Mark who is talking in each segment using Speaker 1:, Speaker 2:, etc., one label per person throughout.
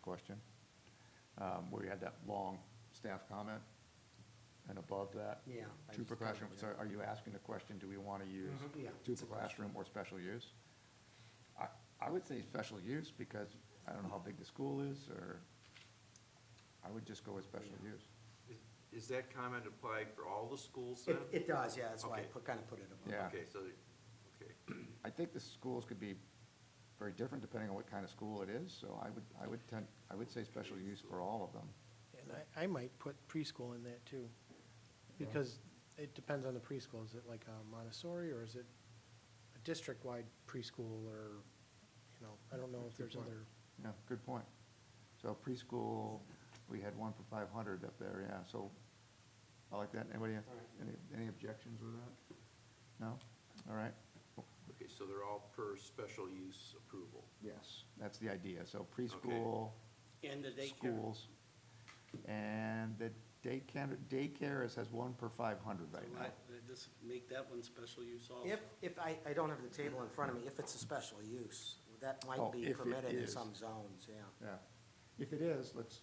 Speaker 1: question. Um, where you had that long staff comment and above that.
Speaker 2: Yeah. I
Speaker 1: Two
Speaker 2: just
Speaker 1: per
Speaker 2: covered
Speaker 1: classroom,
Speaker 2: it.
Speaker 1: so are you asking the question, do we wanna use
Speaker 2: Yeah.
Speaker 1: two
Speaker 2: it's
Speaker 1: per
Speaker 2: a question.
Speaker 1: classroom or special use? I, I would say special use because I don't know how big the school is or, I would just go with special
Speaker 2: Yeah.
Speaker 1: use.
Speaker 3: Is- Is that comment applied for all the schools then?
Speaker 2: It, it does, yeah, that's why I
Speaker 3: Okay.
Speaker 2: put, kind of put it above.
Speaker 1: Yeah.
Speaker 3: Okay, so, okay.
Speaker 1: I think the schools could be very different depending on what kind of school it is, so I would, I would tend, I would say special use for all of them.
Speaker 4: And I, I might put preschool in that too, because it depends on the preschool. Is it like a Montessori or is it a district-wide preschool or, you know, I don't know if there's other,
Speaker 1: Yeah, good point. So preschool, we had one for five hundred up there, yeah, so I like that. Anybody, have-
Speaker 2: All right.
Speaker 1: any, any objections with that? No? All right.
Speaker 3: Okay, so they're all per special use approval.
Speaker 1: Yes, that's the idea. So preschool,
Speaker 2: And the
Speaker 1: schools. And the daycare, daycare is, has one per five hundred right now.
Speaker 5: Just make that one special use also.
Speaker 2: If, if, I, I don't have the table in front of me, if it's a special use, that
Speaker 1: Oh,
Speaker 2: might be
Speaker 1: if it
Speaker 2: permitted in
Speaker 1: is.
Speaker 2: some zones, yeah.
Speaker 1: Yeah. If it is, let's.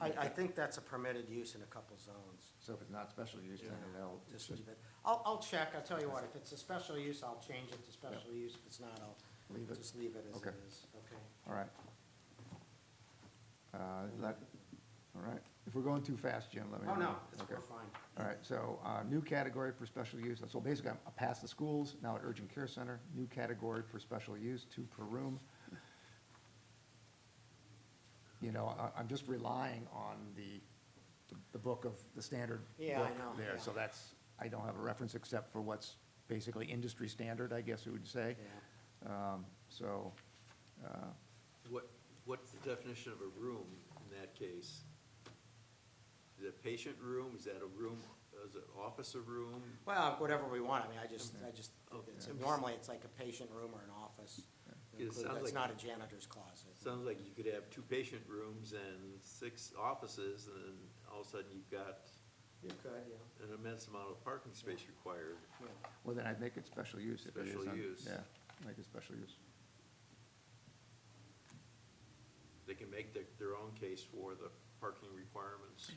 Speaker 2: I, I think that's a permitted use in a couple zones.
Speaker 1: So if it's not special use, then
Speaker 2: Yeah,
Speaker 1: it'll.
Speaker 2: Just leave it. I'll, I'll check, I'll tell you what, if it's a special use, I'll change it to special use, if it's not,
Speaker 1: Leave
Speaker 2: I'll
Speaker 1: it.
Speaker 2: just leave it as
Speaker 1: Okay.
Speaker 2: it is, okay?
Speaker 1: All right. Uh, that, all right. If we're going too fast, Jim, let me.
Speaker 2: Oh, no,
Speaker 1: know.
Speaker 2: it's,
Speaker 1: Okay.
Speaker 2: we're fine.
Speaker 1: All right, so, uh, new category for special use. So basically, I'm past the schools, now at urgent care center, new category for special use, two per room. You know, I, I'm just relying on the, the book of, the standard
Speaker 2: Yeah, I
Speaker 1: book
Speaker 2: know,
Speaker 1: There,
Speaker 2: yeah.
Speaker 1: so that's, I don't have a reference except for what's basically industry standard, I guess you would say. Um, so, uh,
Speaker 3: What, what's the definition of a room in that case? Is it a patient room? Is that a room, is it office a room?
Speaker 2: Well, whatever we want, I mean, I just, I just,
Speaker 3: Okay.
Speaker 2: it's, normally it's like a patient room or an office.
Speaker 3: Yeah. It sounds
Speaker 2: That's
Speaker 3: like-
Speaker 2: not a janitor's closet.
Speaker 3: Sounds like you could have two patient rooms and six offices, and then all of a sudden you've got
Speaker 2: You could, yeah.
Speaker 3: an immense amount of parking space required.
Speaker 2: yeah.
Speaker 1: well, then I'd make it special use if it is.
Speaker 3: Special
Speaker 1: on-
Speaker 3: use.
Speaker 1: Yeah, make it special use.
Speaker 3: They can make their, their own case for the parking requirements.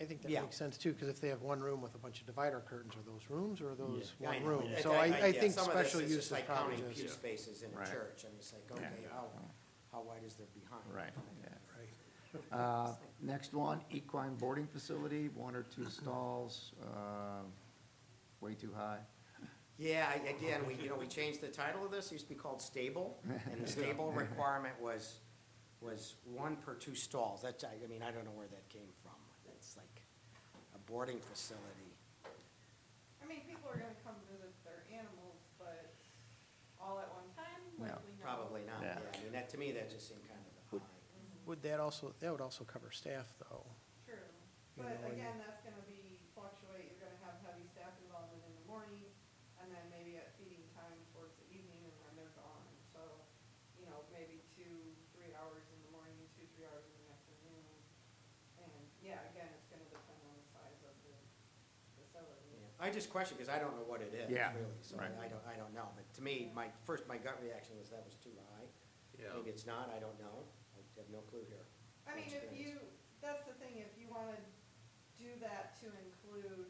Speaker 4: I think that
Speaker 2: Yeah.
Speaker 4: makes sense too, because if they have one room with a bunch of divider curtains, are those rooms or are those
Speaker 2: I
Speaker 4: one
Speaker 2: know.
Speaker 4: room?
Speaker 2: Yeah,
Speaker 4: So I, I
Speaker 2: yeah,
Speaker 4: think
Speaker 2: some of this
Speaker 4: special
Speaker 2: is
Speaker 4: use
Speaker 2: just
Speaker 4: is
Speaker 2: like
Speaker 4: probably
Speaker 2: Counting pew
Speaker 4: just,
Speaker 2: spaces in a
Speaker 1: Right.
Speaker 2: church, and it's like, okay,
Speaker 1: Yeah.
Speaker 2: how, how wide is there behind?
Speaker 1: Right, yeah. Uh, Next one, equine boarding facility, one or two stalls, uh, way too high.
Speaker 2: Yeah, I- again, we, you know, we changed the title of this, it used to be called stable, and the stable requirement was, was one per two stalls, that's, I I mean, I don't know where that came from, that's like a boarding facility.
Speaker 6: I mean, people are gonna come visit their animals, but all at one time,
Speaker 1: No,
Speaker 6: likely not.
Speaker 2: Probably not, yeah,
Speaker 1: Yeah.
Speaker 2: I mean, that, to me, that just seemed kind of high.
Speaker 4: would that also, that would also cover staff though.
Speaker 6: True,
Speaker 4: You
Speaker 6: but
Speaker 4: know, and-
Speaker 6: again, that's gonna be fluctuate, you're gonna have heavy staff involvement in the morning, and then maybe at feeding time towards the evening, and then they're gone, so, you know, maybe two, three hours in the morning, two, three hours in the afternoon. And, yeah, again, it's gonna depend on the size of the facility.
Speaker 2: Yeah. I just question, because I don't know what it is,
Speaker 1: Yeah,
Speaker 2: really, so I
Speaker 1: right.
Speaker 2: I don't, I don't know, but to me, my, first, my gut reaction was that was too high.
Speaker 3: Yeah.
Speaker 2: Maybe it's not, I don't know, I have no clue here.
Speaker 6: I mean, if
Speaker 2: Experience.
Speaker 6: you, that's the thing, if you wanna do that to include,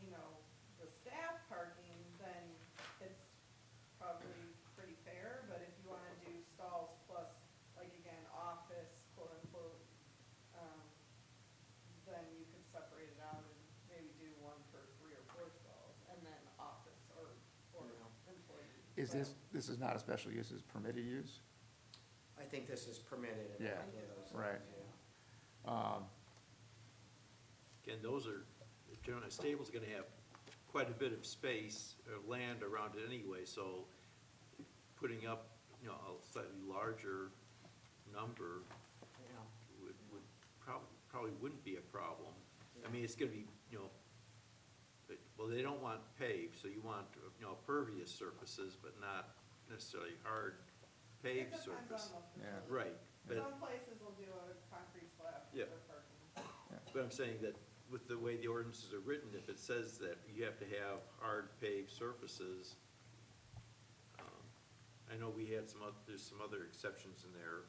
Speaker 6: you know, the staff parking, then it's probably pretty fair, but if you wanna do stalls plus, like again, office, quote unquote, um, then you could separate it out and maybe do one for three or four stalls, and then office or, or
Speaker 2: Yeah.
Speaker 6: employee.
Speaker 1: Is
Speaker 6: But-
Speaker 1: this, this is not a special use, it's permitted use?
Speaker 2: I think this is permitted in a
Speaker 1: Yeah,
Speaker 2: couple of those.
Speaker 1: right.
Speaker 2: zones, yeah.
Speaker 1: Um,
Speaker 3: Again, those are, generally, a stable's gonna have quite a bit of space or land around it anyway, so putting up, you know, a slightly larger number
Speaker 2: Yeah,
Speaker 3: would, would probably, probably wouldn't be a problem. I mean, it's gonna be, you know, but- well, they don't want paved, so you want, you know, pervious surfaces, but not necessarily hard
Speaker 6: It
Speaker 3: paved
Speaker 6: depends on
Speaker 3: surface.
Speaker 6: the
Speaker 1: Yeah.
Speaker 6: facility.
Speaker 3: Right, but,
Speaker 6: Some places will do a concrete slab
Speaker 3: Yeah.
Speaker 6: for parking.
Speaker 3: but I'm saying that with the way the ordinances are written, if it says that you have to have hard paved surfaces, um, I know we had some, oth- there's some other exceptions in there